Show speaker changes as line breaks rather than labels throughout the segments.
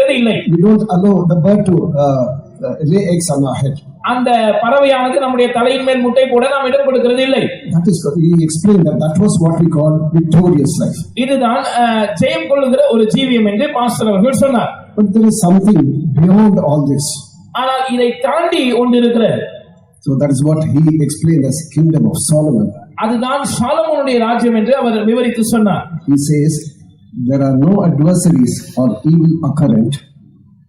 தேவை இல்லை
We don't allow the bird to uh, uh, lay eggs on our head.
அந்த பறவையானது நம்முடைய தலையின் மேல் முட்டை போட நாம் இடம் கொடுக்கிறது இல்லை
That is, what he explained that that was what we call victorious life.
இதுதான் அஹ், ஜெயம் கொள்ளுகிற ஒரு ஜீவியம் என்று பாஸ்டர் அவர்கள் சொன்னார்
But there is something beyond all this.
ஆனால் இதை தாண்டி ஒன்று இருக்கிறது
So that is what he explained as kingdom of Solomon.
அதுதான் சாலமோனுடைய ராஜ்யம் என்று அவர் விவரித்து சொன்னார்
He says there are no adversaries or evil occurrent.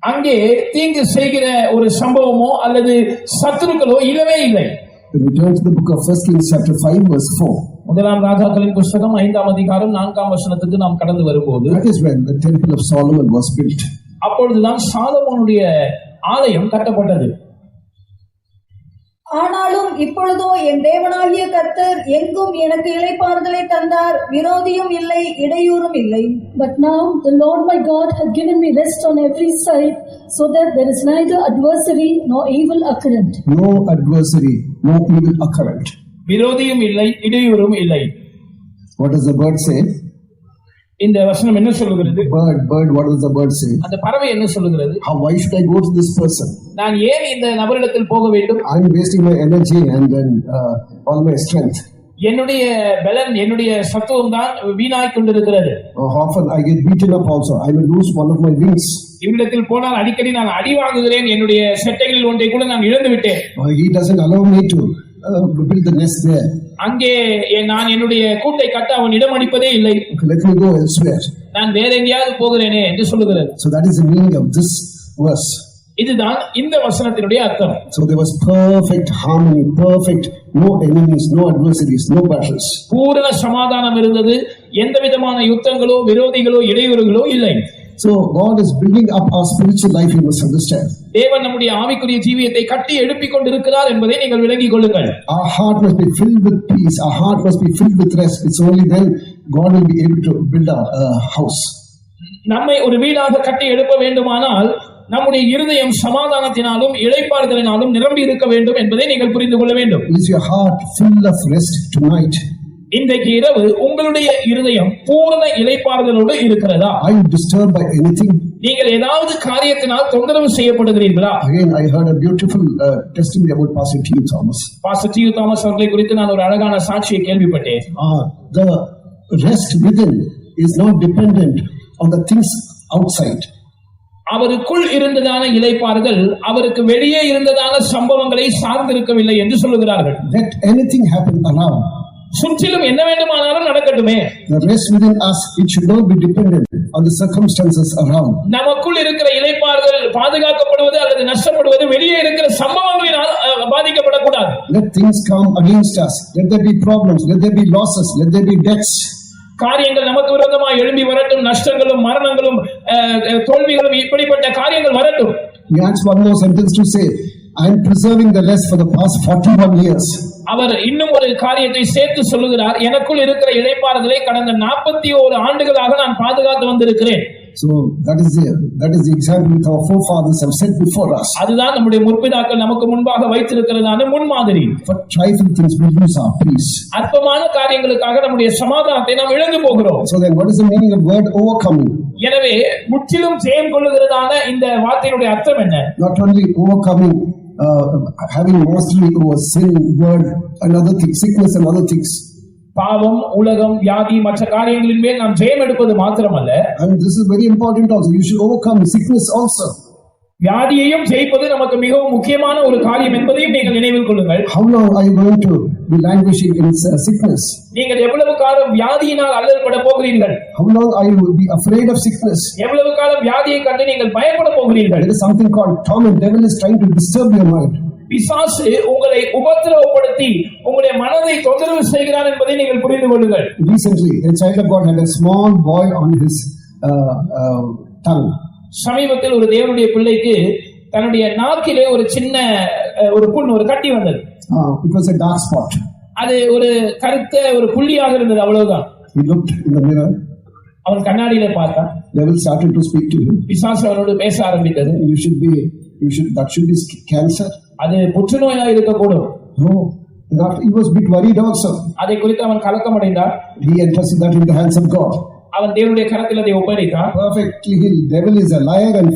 அங்கே தீங்கு செய்கிற ஒரு சம்பவமோ அல்லது சத்துருக்களோ இல்லவே இல்லை
When we turn to the book of First Kings chapter five verse four,
முதலாம் ராஜாக்களின் புஸ்தகம் ஐந்தாம் அதிகாரம் நான்காம் வசனத்துக்கு நாம் கடந்து வரும்போது
that is when the temple of Solomon was built.
அப்பொழுதுதான் சாலமோனுடைய ஆலயம் கட்டப்பட்டது
ஆனாலும் இப்பொழுதோ என் தேவனாகிய கர்த்தர் எங்கும் எனக்கு இளைப்பாறுதலை தந்தார் விரோதியும் இல்லை இடையூறும் இல்லை
But now the Lord my God hath given me rest on every side, so that there is neither adversary nor evil occurrent.
No adversary, no evil occurrent.
விரோதியும் இல்லை இடையூறும் இல்லை
What does the bird say?
இந்த வசனம் என்ன சொல்லுகிறது
Bird, bird, what does the bird say?
அந்த பறவை என்ன சொல்லுகிறது
How, why should I go to this person?
நான் ஏன் இந்த நபரிடத்தில் போக வேண்டும்
I'm wasting my energy and then uh, all my strength.
என்னுடைய பலன் என்னுடைய சத்துவம் தான் வீணாய் கொண்டிருக்கிறது
Uh, often I get beaten up also. I will lose one of my wings.
இவ்விடத்தில் போனால் அடிக்கடி நான் அடி வாங்குகிறேன் என்னுடைய செட்டைகளில் ஒன்றை கூட நான் இழந்து விட்டேன்
Uh, he doesn't allow me to uh, build the nest there.
அங்கே என்- நான் என்னுடைய கூட்டை கட்ட அவன் இடம் அளிப்பதே இல்லை
Okay, let me go elsewhere.
நான் வேற எங்கேயாவது போகிறேனே என்று சொல்லுகிறது
So that is the meaning of this verse.
இதுதான் இந்த வசனத்தினுடைய அர்த்தம்
So there was perfect harmony, perfect, no enemies, no adversaries, no battles.
பூரண சமாதானம் இருந்தது எந்த விதமான யுத்தங்களோ விரோதிகளோ இடையூறுகளோ இல்லை
So God is building up our spiritual life, you must understand.
தேவன் நம்முடைய ஆவிக்குரிய ஜீவியத்தை கட்டி எழுப்பிக் கொண்டிருக்கிறார் என்பதை நீங்கள் விளங்கிக் கொள்ளுங்கள்
Our heart must be filled with peace, our heart must be filled with rest. It's only then God will be able to build our uh, house.
நம்மை ஒரு வீடாக கட்டி எழுப்ப வேண்டுமானால் நம்முடைய இருதயம் சமாதானத்தினாலும் இளைப்பாறுதலினாலும் நிரம்பி இருக்க வேண்டும் என்பதை நீங்கள் புரிந்து கொள்ள வேண்டும்
Is your heart full of rest tonight?
இன்றைக்கு இரவு உங்களுடைய இருதயம் பூரண இளைப்பாறுதலோடு இருக்கிறதா
Are you disturbed by anything?
நீங்கள் ஏதாவது காரியத்தினால் தொந்தரவு செய்யப்படுகிறீர்களா
Again, I heard a beautiful uh, testimony about Pastor T. Thomas.
Pastor T Thomas அவர்களை குறித்து நான் ஒரு அழகான சாட்சியை கேள்விப்பட்டேன்
Ah, the rest within is not dependent on the things outside.
அவருக்குள் இருந்ததான இளைப்பாறுதல் அவருக்கு வெளியே இருந்ததான சம்பவங்களை சார்ந்திருக்கவில்லை என்று சொல்லுகிறார்கள்
Let anything happen around.
சுற்றிலும் என்ன வேண்டுமானாலும் நடக்கட்டுமே
The rest within us, it should not be dependent on the circumstances around.
நமக்குள் இருக்கிற இளைப்பாறுதல் பாதுகாக்கப்படுவது அல்லது நஷ்டப்படுவது வெளியே இருக்கிற சம்பவங்களினால் அஹ், பாதிக்கப்படக்கூடாது
Let things come against us. Let there be problems. Let there be losses. Let there be deaths.
காரியங்கள் நமக்கு விரோதமாக எழும்பி வரட்டும் நஷ்டங்களும் மரணங்களும் அஹ், அஹ், தோல்விகளும் இப்படிப்பட்ட காரியங்கள் வரட்டும்
He adds one more sentence to say, I am preserving the rest for the past 41 years.
அவர் இன்னும் ஒரு காரியத்தை சேர்த்து சொல்லுகிறார் எனக்குள் இருக்கிற இளைப்பாறுதலை கடந்த நாற்பத்தி ஓரு ஆண்டுகளாக நான் பாதுகாத்து வந்திருக்கிறேன்
So that is the that is the example that our forefathers have set before us.
அதுதான் நம்முடைய முற்பிதாக்கள் நமக்கு முன்பாக வைத்திருக்கிறதான முன்மாதிரி
For trifling things, we lose our peace.
அற்பமான காரியங்களுக்காக நம்முடைய சமாதானத்தை நாம் இழந்து போகிறோம்
So then, what is the meaning of word overcoming?
எனவே முற்றிலும் ஜெயம் கொள்ளுகிறதான இந்த வார்த்தையினுடைய அர்த்தம் என்ன
not only overcoming, uh, having mastery over sin, word, and other things, sickness and other things.
பாவம் உலகம் வியாதி மற்ற காரியங்களின் மேல் நாம் ஜெயம் எடுப்பது மாத்திரமல்ல
And this is very important also. You should overcome sickness also.
வியாதியையும் ஜெயிப்பது நமக்கு மிகவும் முக்கியமான ஒரு காரியம் என்பதையும் நீங்கள் நினைவில் கொள்ளுங்கள்
How long are you going to be languishing in uh, sickness?
நீங்கள் எவ்வளவு காலம் வியாதியினால் அல்லல்பட போகிறீர்கள்
How long are you will be afraid of sickness?
எவ்வளவு காலம் வியாதியை கண்டு நீங்கள் பயப்பட போகிறீர்கள்
There is something called torment. Devil is trying to disturb your mind.
பிசாசு உங்களை உபத்திரவப்படுத்தி உங்களுடைய மனதை தொந்தரவு செய்கிறார் என்பதை நீங்கள் புரிந்து கொள்ளுங்கள்
Recently, a child of God had a small boy on his uh, uh, tongue.
சமீபத்தில் ஒரு தேவனுடைய பிள்ளைக்கு தன்னுடைய நாக்கிலே ஒரு சின்ன அஹ், ஒரு புண் ஒரு கட்டி வந்தது
Uh, it was a dark spot.
அது ஒரு கருத்த ஒரு புள்ளியாக இருந்தது அவ்வளவுதான்
He looked in the mirror.
அவன் கண்ணாடியில பார்த்தான்
Devil started to speak to him.
பிசாசு அவனோடு பேச ஆரம்பித்தது
you should be you should that should be skin cancer
அது புற்றுநோயா இருக்கக்கூடும்
no that he was a bit worried also
அதை குறித்து அவன் கலக்கம் அடைந்தான்
he entrusted that in the hands of god
அவன் தேவனுடைய கரத்தில் அதை ஒப்படைத்தான்
perfectly healed devil is a liar and